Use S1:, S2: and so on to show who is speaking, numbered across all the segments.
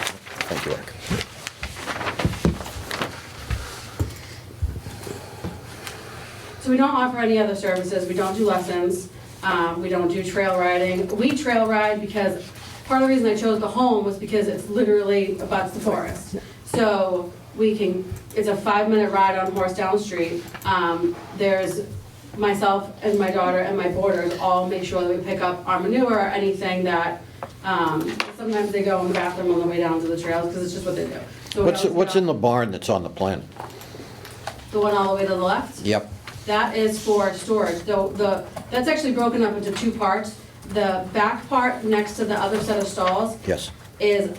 S1: Thank you, Eric.
S2: So we don't offer any other services, we don't do lessons, um, we don't do trail riding. We trail ride because, part of the reason I chose the home was because it's literally abuts the forest. So we can, it's a five-minute ride on horse down the street. Um, There's myself and my daughter and my boarders all make sure that we pick up our manure, or anything that, um, sometimes they go in the bathroom on the way down to the trails, because it's just what they do. So we
S1: What's,
S2: always
S1: what's
S2: pick
S1: in the
S2: up
S1: barn that's on the plan?
S2: The one all the way to the left?
S1: Yep.
S2: That is for storage, though the, that's actually broken up into two parts. The back part next to the other set of stalls
S1: Yes.
S2: is,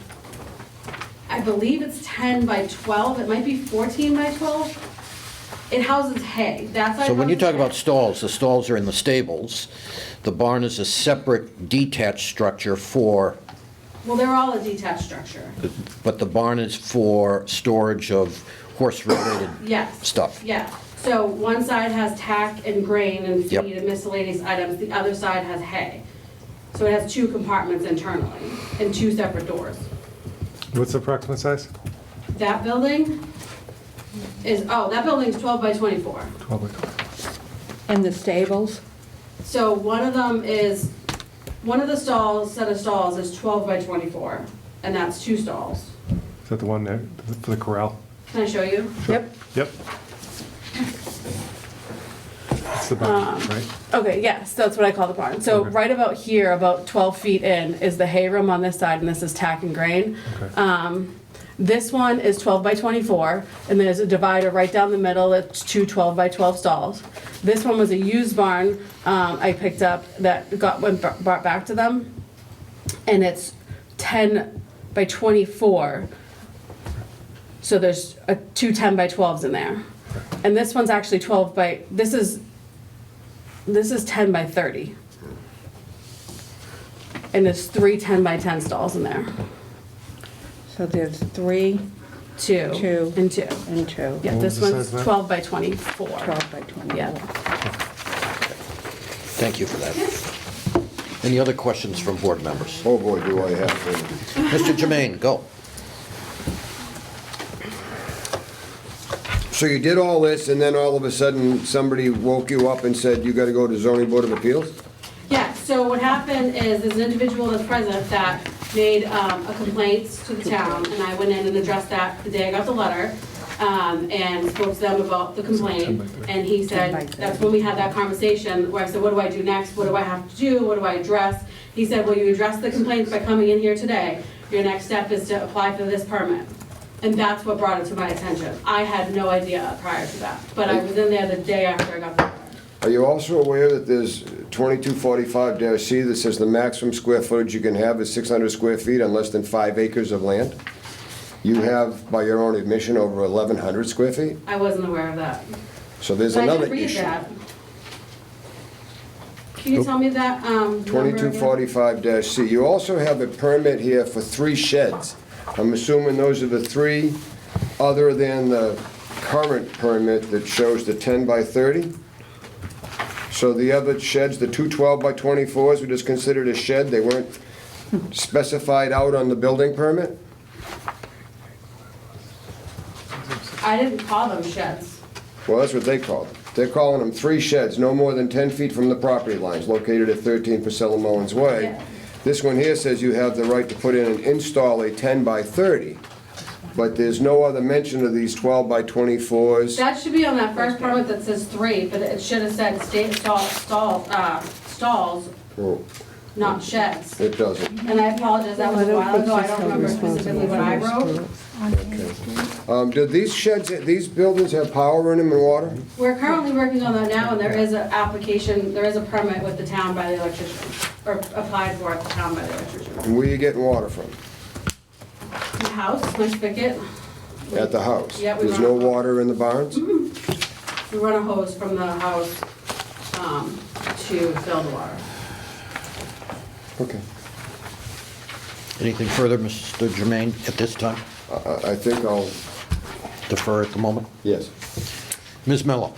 S2: I believe it's ten by twelve, it might be fourteen by twelve. It houses hay, that side.
S1: So when you
S2: houses
S1: talk about
S2: hay.
S1: stalls, the stalls are in the stables. The barn is a separate detached structure for,
S2: Well, they're all a detached structure,
S1: but the barn is for storage of horse-related
S2: yes.
S1: stuff.
S2: Yeah, so one side has tack and grain and
S1: Yep.
S2: feed and miscellaneous items, the other side has hay. So it has two compartments internally and two separate doors.
S3: What's the approximate size?
S2: That building is, oh, that building's 12 by 24.
S3: 12 by 12.
S4: And the stables?
S2: So one of them is, one of the stalls, set of stalls is 12 by 24, and that's two stalls.
S3: Is that the one there, for the corral?
S2: Can I show you?
S4: Yep.
S3: Yep. It's the barn, right?
S5: Okay, yes, that's what I call the barn. So
S3: Okay.
S5: right about here, about 12 feet in, is the hay room on this side, and this is tack and grain.
S3: Okay.
S5: Um, This one is 12 by 24, and there's a divider right down the middle, it's two 12 by 12 stalls. This one was a used barn um, I picked up that got, went br- brought back to them, and it's 10 by 24. So there's uh, two 10 by 12s in there. And this one's actually 12 by, this is this is 10 by 30. And there's three 10 by 10 stalls in there.
S4: So there's three
S5: Two.
S4: Two.
S5: And two.
S4: and two.
S5: Yeah,
S3: What
S5: this
S3: was the
S5: one's
S3: size
S5: 12
S3: of that?
S5: by 24.
S4: 12 by 24.
S5: Yeah.
S1: Thank you for that. Any other questions from board members?
S6: Oh, boy, do I have to.
S1: Mr. Jermaine, go.
S6: So you did all this, and then all of a sudden, somebody woke you up and said, you gotta go to zoning board of appeals?
S2: Yeah, so what happened is, there's an individual that's present that made um, a complaint to the town, and I went in and addressed that the day I got the letter, um, and spoke to them about the complaint, and he said, that's when we had that conversation, where I said, what do I do next, what do I have to do, what do I address? He said, well, you address the complaints by coming in here today, your next step is to apply for this permit. And that's what brought it to my attention, I had no idea prior to that, but I was in there the day after I got the letter.
S6: Are you also aware that there's 2245-C that says the maximum square footage you can have is 600 square feet on less than five acres of land? You have, by your own admission, over 1,100 square feet,
S2: I wasn't aware of that.
S6: so there's
S2: I didn't
S6: another
S2: read
S6: issue.
S2: that. Can you tell me that, um, number again?
S6: 2245-C. You also have a permit here for three sheds. I'm assuming those are the three, other than the current permit that shows the 10 by 30? So the other sheds, the two 12 by 24s, were just considered a shed? They weren't specified out on the building permit?
S2: I didn't call them sheds.
S6: Well, that's what they call them. They're calling them three sheds, no more than 10 feet from the property lines, located at 13 Priscilla Mullins Way.
S2: Yeah.
S6: This one here says you have the right to put in and install a 10 by 30, but there's no other mention of these 12 by 24s.
S2: That should be on that first permit that says three, but it should have said state stall, stall, uh, stalls,
S6: Oh,
S2: not sheds.
S6: It doesn't.
S2: And Mm-hmm. I apologize, that was a while ago, I don't remember specifically what I wrote.
S6: Um, Do these sheds, these buildings have power in them and water?
S2: We're currently working on that now, and there is an application, there is a permit with the town by the electrician, or applied for at the town by the electrician.
S6: And where you getting water from?
S2: The house, my spigot,
S6: At the house?
S2: Yeah, we
S6: There's
S2: run Mm-hmm.
S6: no
S2: a hose.
S6: water in the barns?
S2: We run a hose from the house um, to fill the water.
S6: Okay.
S1: Anything further, Mr. Jermaine, at this time?
S6: I- I I think I'll,
S1: Defer at the moment.
S6: yes.
S1: Ms. Mello?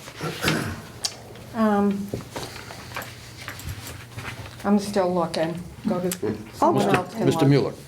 S4: Um,
S5: Oh,
S4: I'm still looking. Go to, someone else can look.
S1: Mr. Mueller?